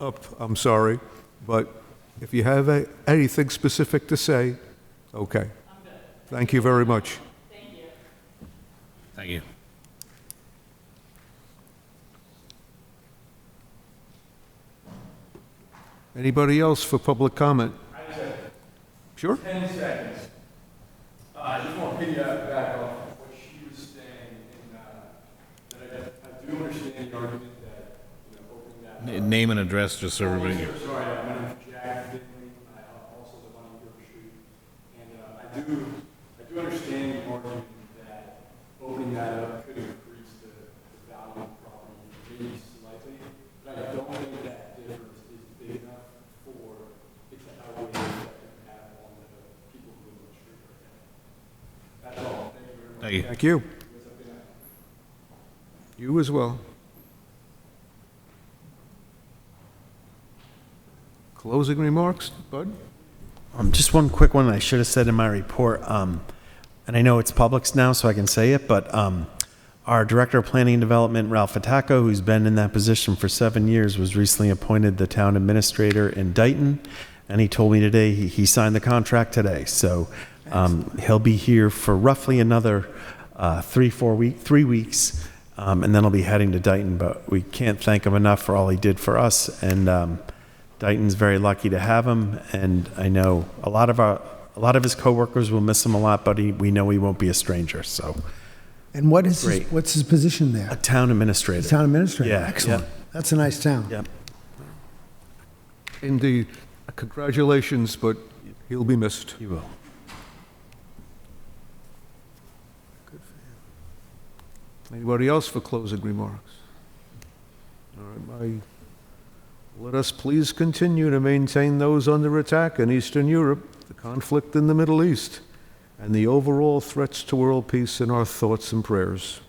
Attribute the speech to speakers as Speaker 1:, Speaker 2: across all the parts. Speaker 1: up, I'm sorry, but if you have a- anything specific to say, okay. Thank you very much.
Speaker 2: Thank you.
Speaker 1: Anybody else for public comment? Sure?
Speaker 3: 10 seconds. Uh, I just want to piggyback back off of what she was saying, and uh, that I I do understand the argument that, you know, opening that
Speaker 2: N- Name and address, just so everybody.
Speaker 3: Sorry, uh, my name is Jack Finley, I uh, also live on York Street. And uh, I do, I do understand the argument that opening that up could increase the the value of the property maybe slightly, but I don't think that difference is big enough for the outweigh the effect it can have on the people who live on the street right now. That's all, thank you very much.
Speaker 2: Thank you.
Speaker 1: Thank you. You as well. Closing remarks, Bud?
Speaker 4: Um, just one quick one I should have said in my report, um, and I know it's Publix now, so I can say it, but um, our Director of Planning and Development, Ralph Fataco, who's been in that position for seven years, was recently appointed the town administrator in Dayton, and he told me today he, he signed the contract today. So um, he'll be here for roughly another uh, three, four week, three weeks, um, and then he'll be heading to Dayton. But we can't thank him enough for all he did for us, and um, Dayton's very lucky to have him, and I know a lot of our, a lot of his coworkers will miss him a lot, but he, we know he won't be a stranger. So,
Speaker 5: And what is, his
Speaker 4: Great.
Speaker 5: what's his position
Speaker 4: a
Speaker 5: there?
Speaker 4: town administrator.
Speaker 5: Town administrator?
Speaker 4: Yeah,
Speaker 5: Excellent. That's a nice town.
Speaker 4: Yep.
Speaker 1: Indeed. Congratulations, but he'll be missed.
Speaker 4: He will.
Speaker 1: Anybody else for closing remarks? All right, my, let us please continue to maintain those under attack in Eastern Europe, the conflict in the Middle East, and the overall threats to world peace in our thoughts and prayers.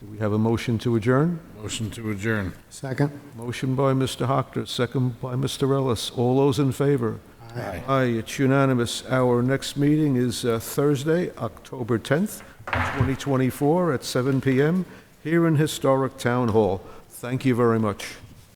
Speaker 1: Do we have a motion to adjourn?
Speaker 2: Motion to adjourn.
Speaker 5: Second?
Speaker 1: Motion by Mr. Hockter, second by Mr. Ellis. All those in favor?
Speaker 2: Aye.
Speaker 1: Aye, it's unanimous. Our next meeting is uh, Thursday, October 10th, 2024, at 7 PM, here in Historic Town Hall. Thank you very much.